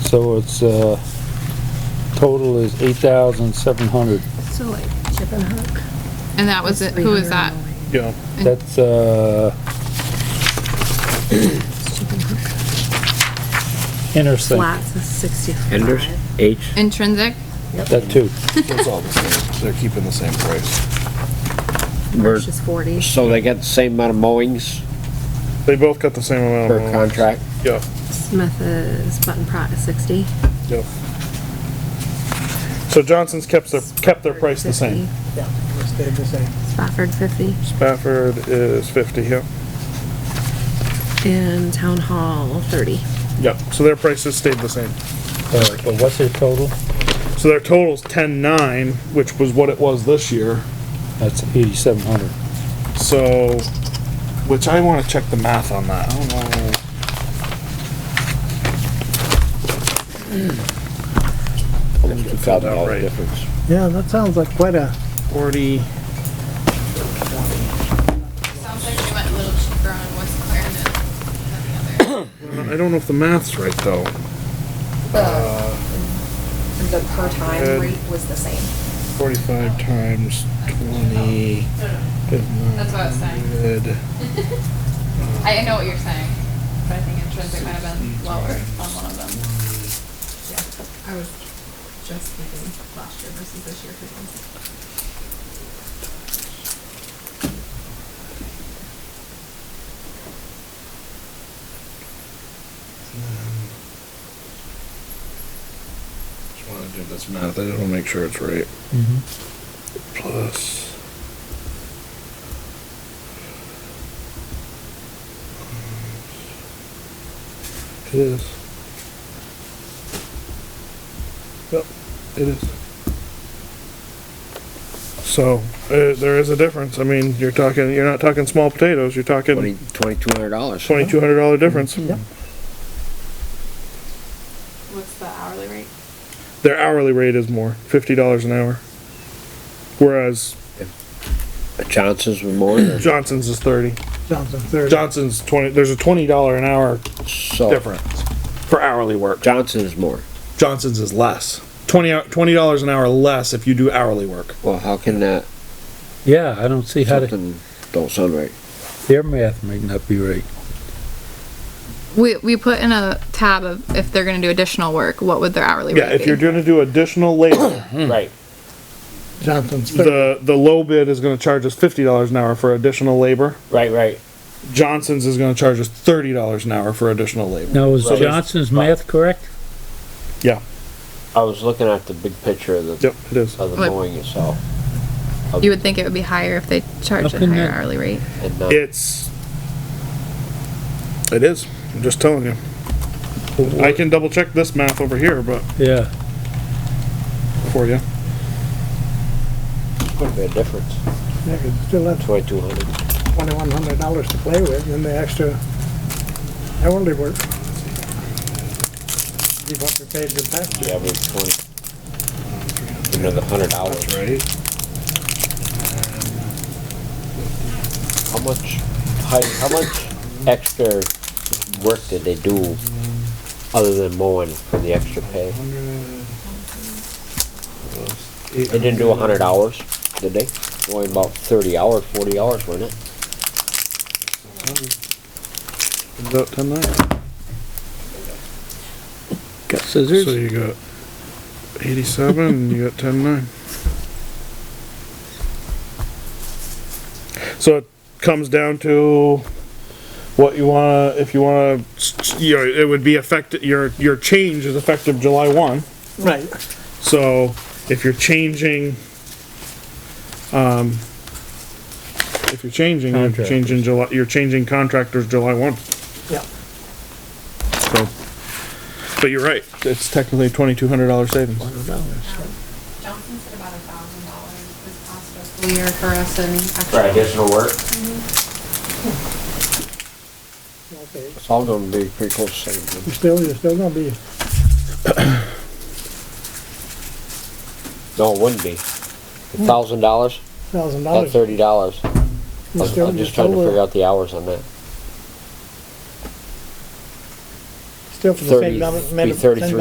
So it's, uh, total is eight thousand seven hundred. So like chip and hook. And that was it, who is that? Yeah, That's, uh, Intersect, Flats is sixty-five. Henders, H, Intrinsic? that too. it's all the same. They're keeping the same price. where, Which is forty. so they get the same amount of mowings They both got the same amount per of mowings. contract? Yeah, Smith is Button Pratt is sixty. yeah. So Johnson's kept their, kept their price the same. 50, Yeah, it stayed the same. Spafford fifty. Spafford is fifty, yeah. And Town Hall thirty. Yeah, so their prices stayed the same. Uh, But what's their total? So their total's ten-nine, which was what it was this year. That's eighty-seven hundred. So, which I wanna check the math on that. I don't know. Fifty thousand dollar Right. difference. Yeah, that sounds like quite a, Forty, Sounds like we went a little cheaper on West Clarendon than the other. I don't know if the math's right though. The per Good. time rate was the same. Forty-five times twenty. That's what I was saying. Good. I, I know what you're saying, but I think intrinsic might have been lower on one of them. I was just thinking last year versus this year. Just wanna do this math, I just wanna make sure it's right. Plus. It is. Yep, it is. So, uh, there is a difference, I mean, you're talking, you're not talking small potatoes, you're Twenty, talking twenty-two hundred dollars. twenty-two hundred dollar difference. What's the hourly rate? Their hourly rate is more, fifty dollars an hour. Whereas Johnson's were more than, Johnson's is thirty. Johnson thirty. Johnson's twenty, there's a twenty dollar an hour Oh. so, difference for hourly work. Johnson's more. Johnson's is less. Twenty hou- twenty dollars an hour less if you do hourly work. Well, how can that, Yeah, I don't see how to, something don't sound right? their math might not be right. We, we put in a tab of if they're gonna do additional work, what would their hourly rate Yeah, be? if you're gonna do additional labor. Right. Johnson's thirty. The, the low bid is gonna charge us fifty dollars an hour for additional labor. Right, right. Johnson's is gonna charge us thirty dollars an hour for additional labor. Now, is Right. Johnson's math correct? Yeah, I was looking at the big picture of the, yep, it is. of the What? mowing itself. You would think it would be higher if they charged Up a in higher that- hourly rate. and uh, not- It's, it is, I'm just telling you. I can double check this math over here, but, Yeah, for you. Quite a bit of difference, They could still have twenty-two hundred. twenty-one hundred dollars to play with and the extra hourly work. See what we paid the tax. The average twenty. Another hundred dollars. right. How much, how, how much extra work did they do other than mowing for the extra pay? They didn't do a hundred hours, did they? Only about thirty hours, forty hours, wasn't it? About ten nine. got So scissors? you got eighty-seven, and you got ten nine. So it comes down to what you wanna, if you wanna, you know, it would be affected, your, your change is effective July one. Right. So if you're changing, um, if you're changing, you're Contractors. changing July, you're changing contractors July one. Yeah. So, but you're right, it's technically twenty-two hundred dollar savings. Johnson said about a thousand dollars this past fiscal year for us and For additional work? Okay. It's all gonna be pretty close to the same. You're still, you're still gonna be, No, it wouldn't be. A thousand dollars, thousand about dollars. thirty dollars. You're still- I'm you're just trying to still, uh, figure out the hours on that. Still for the 30, same amount. be of- same 33